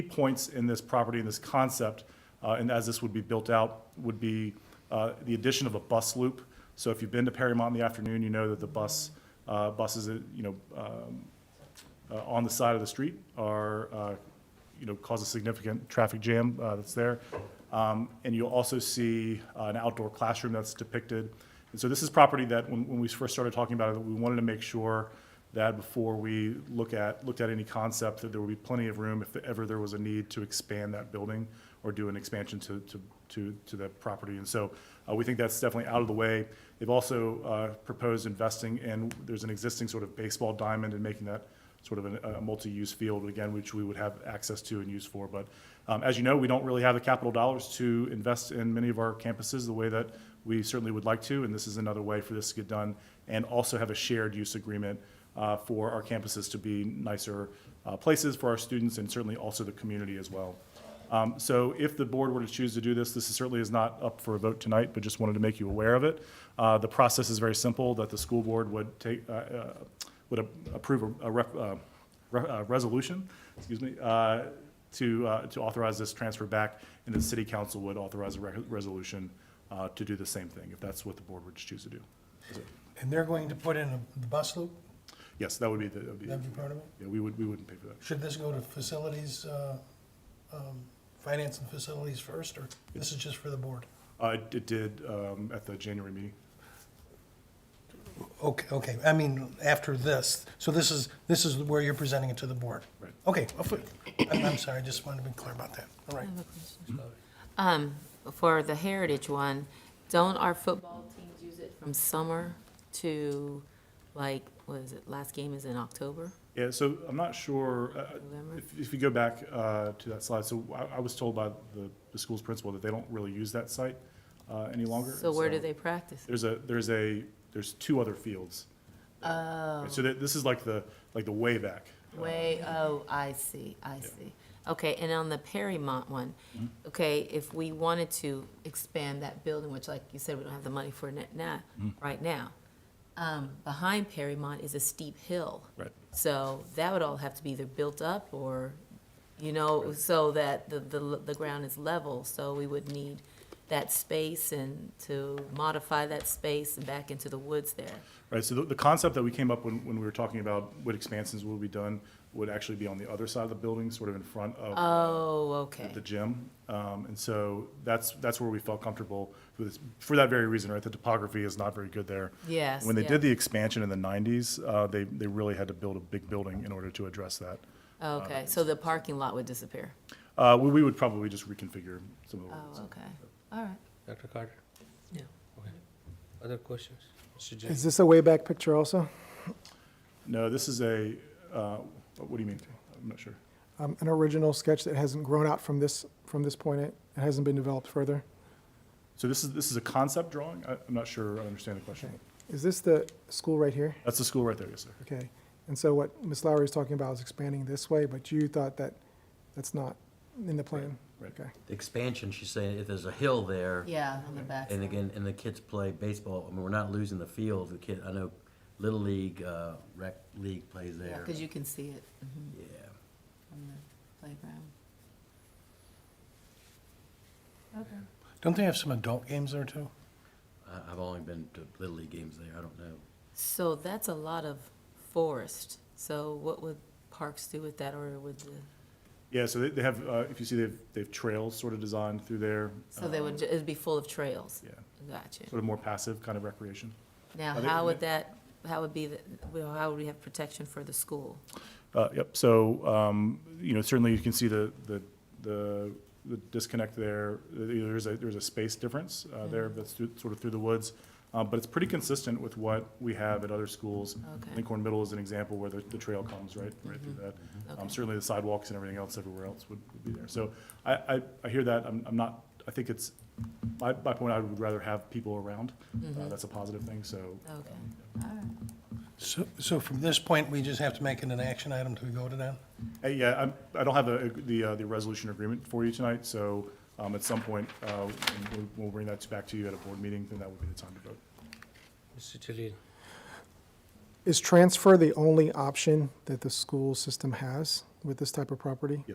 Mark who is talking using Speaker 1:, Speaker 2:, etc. Speaker 1: points in this property, in this concept, uh, and as this would be built out, would be uh, the addition of a bus loop. So if you've been to Perrymont in the afternoon, you know that the bus, uh, buses, uh, you know, um, uh, on the side of the street are, uh, you know, cause a significant traffic jam uh, that's there. Um, And you'll also see uh, an outdoor classroom that's depicted. And so this is property that, when when we first started talking about it, we wanted to make sure that before we look at, looked at any concept, that there would be plenty of room if ever there was a need to expand that building or do an expansion to, to, to, to that property. And so uh, we think that's definitely out of the way. They've also uh, proposed investing in, there's an existing sort of baseball diamond and making that sort of an- a multi-use field, again, which we would have access to and use for. But um, as you know, we don't really have the capital dollars to invest in many of our campuses the way that we certainly would like to, and this is another way for this to get done, and also have a shared use agreement uh, for our campuses to be nicer uh, places for our students and certainly also the community as well. Um, So if the board were to choose to do this, this certainly is not up for a vote tonight, but just wanted to make you aware of it. Uh, The process is very simple, that the school board would take, uh, uh, would a- approve a- a ref- uh, re- uh, resolution, excuse me, uh, to, uh, to authorize this transfer back, and the city council would authorize a re- resolution uh, to do the same thing, if that's what the board would choose to do.
Speaker 2: And they're going to put in a- the bus loop,
Speaker 1: Yes, that would be the, that would be-
Speaker 2: that'd be part of it?
Speaker 1: yeah, we would, we wouldn't pay for that.
Speaker 2: Should this go to facilities, uh, um, finance and facilities first, or this is just for the board?
Speaker 1: Uh, It it did um, at the January meeting.
Speaker 2: Okay, okay, I mean, after this, so this is, this is where you're presenting it to the board?
Speaker 1: Right.
Speaker 2: Okay, I'll put- I'm I'm sorry, I just wanted to be clear about that, all right.
Speaker 3: Um, for the Heritage one, don't our football teams use it from summer to, like, what is it, last game is in October?
Speaker 1: Yeah, so I'm not sure, uh,
Speaker 3: November?
Speaker 1: if, if you go back uh, to that slide, so I, I was told by the, the school's principal that they don't really use that site uh, any longer.
Speaker 3: So where do they practice?
Speaker 1: There's a, there's a, there's two other fields.
Speaker 3: Oh,
Speaker 1: So that, this is like the, like the way back.
Speaker 3: way, oh, I see, I see. Okay, and on the Perrymont one,
Speaker 1: Mm-hmm.
Speaker 3: okay, if we wanted to expand that building, which like you said, we don't have the money for it now,
Speaker 1: Mm-hmm.
Speaker 3: right now. Um, behind Perrymont is a steep hill.
Speaker 1: Right.
Speaker 3: So that would all have to be either built up or, you know, so that the, the, the ground is level. So we would need that space and to modify that space and back into the woods there.
Speaker 1: Right, so the, the concept that we came up when, when we were talking about what expansions will be done would actually be on the other side of the building, sort of in front of
Speaker 3: Oh, okay.
Speaker 1: the gym. Um, and so that's, that's where we felt comfortable for this, for that very reason, right? The topography is not very good there.
Speaker 3: Yes,
Speaker 1: When they
Speaker 3: yeah.
Speaker 1: did the expansion in the nineties, uh, they, they really had to build a big building in order to address that.
Speaker 3: Okay, so the parking lot would disappear.
Speaker 1: Uh, we, we would probably just reconfigure some of the roads.
Speaker 3: Oh, okay, all right.
Speaker 4: Dr. Carter?
Speaker 3: Yeah.
Speaker 4: Okay. Other questions? Mr. J?
Speaker 5: Is this a way back picture also?
Speaker 1: No, this is a, uh, what do you mean? I'm not sure.
Speaker 5: Um, an original sketch that hasn't grown out from this, from this point, it it hasn't been developed further?
Speaker 1: So this is, this is a concept drawing? I, I'm not sure I understand the question.
Speaker 5: Is this the school right here?
Speaker 1: That's the school right there, yes, sir.
Speaker 5: Okay, and so what Ms. Lowry is talking about is expanding this way, but you thought that that's not in the plan?
Speaker 1: Right, right.
Speaker 5: Okay,
Speaker 6: The expansion, she's saying if there's a hill there,
Speaker 3: Yeah, on the back.
Speaker 6: and again, and the kids play baseball, I mean, we're not losing the field, the kid, I know Little League, uh, rec league plays there.
Speaker 3: Because you can see it mhm,
Speaker 6: Yeah,
Speaker 3: from the playground.
Speaker 2: Don't they have some adult games there too?
Speaker 6: I, I've only been to Little League games there, I don't know.
Speaker 3: So that's a lot of forest. So what would parks do with that, or would the,
Speaker 1: Yeah, so they, they have, uh, if you see, they've, they've trails sort of designed through there.
Speaker 3: so they would, ju- it'd be full of trails?
Speaker 1: Yeah,
Speaker 3: Gotcha.
Speaker 1: sort of more passive kind of recreation.
Speaker 3: Now,
Speaker 1: Are they-
Speaker 3: how would that, how would be, the well, how would we have protection for the school?
Speaker 1: Uh, Yep, so, um, you know, certainly you can see the, the- the the disconnect there. There's a, there's a space difference uh,
Speaker 3: Mm-hmm.
Speaker 1: there that's through- sort of through the woods. Uh, But it's pretty consistent with what we have at other schools.
Speaker 3: Oh, Okay. Mm-hmm.
Speaker 1: Lincoln Middle is an example where the, the trail comes right, right through that. Um,
Speaker 3: Okay.
Speaker 1: Certainly the sidewalks and everything else everywhere else would would be there. So I, I, I hear that. I'm, I'm not, I think it's, my, my point, I would rather have people around.
Speaker 3: Mm-hmm.
Speaker 1: Uh, That's a positive thing, so.
Speaker 3: Okay,
Speaker 1: um,
Speaker 3: all right.
Speaker 2: So, so from this point, we just have to make it an action item to go to them?
Speaker 1: Hey, Uh, Yeah, I'm- I don't have the, the, uh, the resolution agreement for you tonight, so um, at some point, uh, we'll- we'll bring that back to you at a board meeting, then that would be the time to vote.
Speaker 4: Mr. Jalil?
Speaker 5: is transfer the only option that the school system has with this type of property?